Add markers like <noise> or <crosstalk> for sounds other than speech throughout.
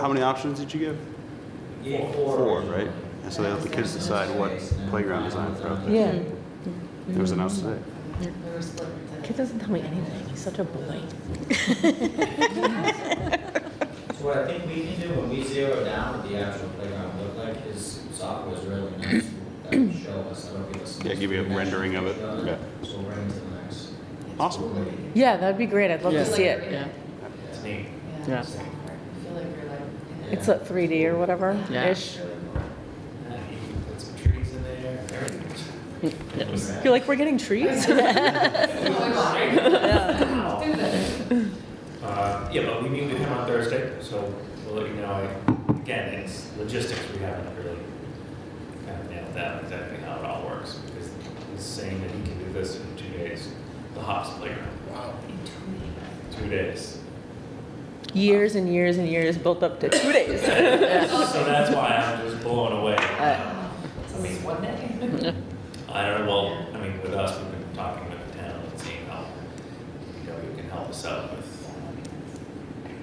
How many options did you give? Four, right? And so they let the kids decide what playground design to throw out there. Yeah. It was announced today. Kid doesn't tell me anything. He's such a boy. So what I think we can do when we zero down what the actual playground look like is software's really nice that will show us, that'll give us. Yeah, give you a rendering of it, yeah. So we're into the next. Awesome. Yeah, that'd be great. I'd love Yeah. to see it. Yeah, It's neat. yeah. Yeah. I feel like we're like, It's a 3D or whatever Yeah. <laughs> ish. And you can put some trees in there, everything. You're like, we're getting trees? Uh, Yeah, but we meet with him on Thursday, so we'll let you know. I- Again, it's logistics, we haven't really kind of nailed down exactly how it all works, because he's saying that he can do this in two days, the hops playground. Wow. Two days. <laughs> years and years and years built up to two days. <laughs> So that's why I'm just blown away. Uh. it's always one day. I don't know, well, I mean, with us, we've been talking with the town and seeing how, you know, you can help us out with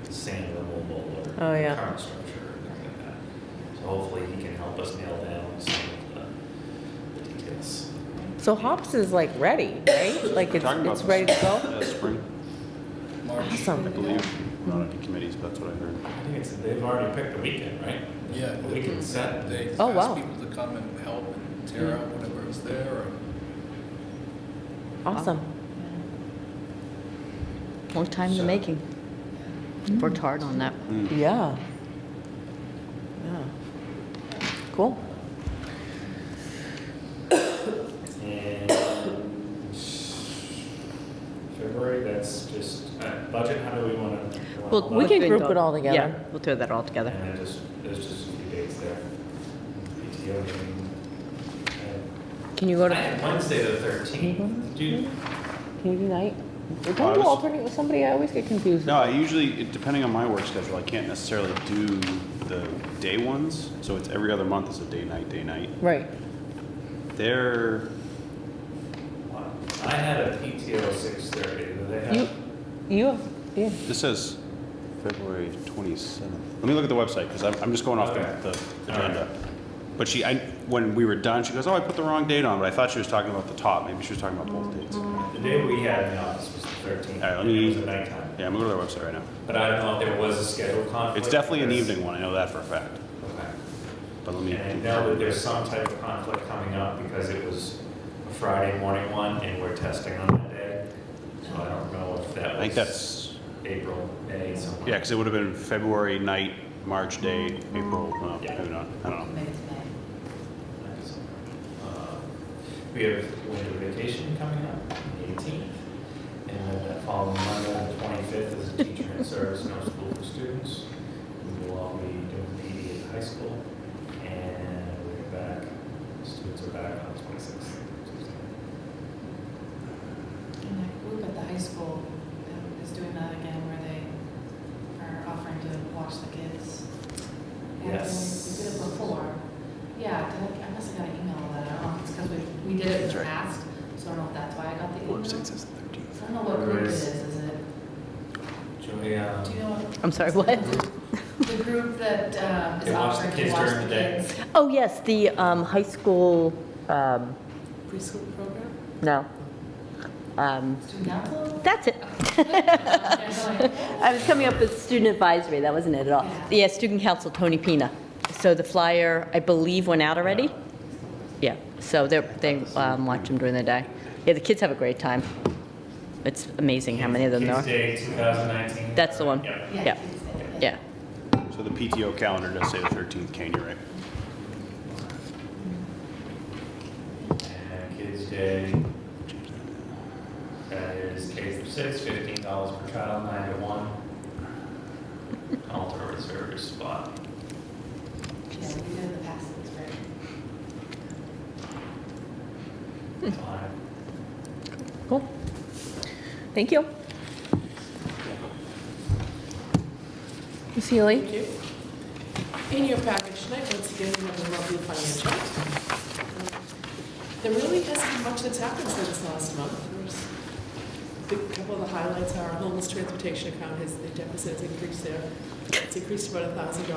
sand removal or Oh, yeah. current structure or things like that. So hopefully he can help us nail down some of the details. so hops is like ready, right? Like We're it's, talking about it's ready to this, go. uh, Spring, I Awesome. believe. I'm Not any committees, but that's what I heard. I think it's, they've already picked the weekend, right? Yeah. The weekend set. They Oh, wow. asked people to come and help and tear out whatever is there. Awesome. More time in the making. Worked hard on that. Hmm. Yeah. Yeah. Cool. And February, that's just, uh, budget, how do we want to? Well, We can group it all together. Yeah, we'll throw that all together. And I just, there's just a few dates there. PTO meeting. Can you go uh, to I had Wednesday the thirteenth, dude. Can you do night? I Don't you was- alternate with somebody? I always get confused. No, I usually, it- depending on my work schedule, I can't necessarily do the day ones. So it's every other month is a day, night, day, night. Right. They're, I had a PTO six thirty, do they You, have? you have, yeah. this says February 27th. Let me look at the website because I'm, I'm just going off Okay. the- the All right. agenda. But she, I, when we were done, she goes, oh, I put the wrong date on, but I thought she was talking about the top. Maybe she was talking about both dates. Mm-hmm. The day we had in the office was the thirteenth, All right, let and me- it was at nighttime. Yeah, I'm gonna go to their website right now. But I don't know if there was a schedule conflict. It's definitely an because- evening one, I know that for a fact, Okay. but let me. And I know that there's some type of conflict coming up because it was a Friday morning one and we're testing on that day. So I don't know if that I was. think that's, April, May, something. yeah, because it would have been February night, March day, April, well, Yeah. maybe not, I don't know. Maybe it's May. Uh, We have winter vacation coming up, the 18th, and then that following Monday, the 25th, is a teacher in service, no school for students. We will all be doing PD at the high school, and we're back, students are back on the 26th. And that group at the high school um, is doing that again where they are offering to watch the kids. And Yes. We did it before. Yeah, did I, I must have got an email of that. I don't know if it's because we, we did it in the past, so I don't know if that's why I got the email. Website says the 13th. I don't know what group it is, is it, Julia, do you know what? I'm sorry, what? The group that um, is They watch the offering to kids watch during the the day. kids. Oh, yes, the um, high school, um, Preschool program, no. Um, student council? <laughs> That's it. I was coming up with student advisory, that wasn't it at all. Yeah. Yeah, student council, Tony Pina. So the flyer, I believe, went out already? Yeah, so they're, they um, watch them during the day. Yeah, the kids have a great time. It's amazing how many of them there Kids are. Day 2019. That's the one. Yeah. Yeah. kids day. Yeah. So the PTO calendar does say the 13th, Kane, you're right. And Kids Day, that is K through six, fifteen dollars per child, nine to one. Alter reserve spot. Yeah, we did it in the past, it's great. Time. Cool. Thank you. Ms. Healy? Thank you. In your package tonight, once again, you have the monthly financials. There really hasn't been much that's happened since last month. There's the couple of the highlights are our homeless transportation account has, the deficit has increased there. It's increased about a thousand dollars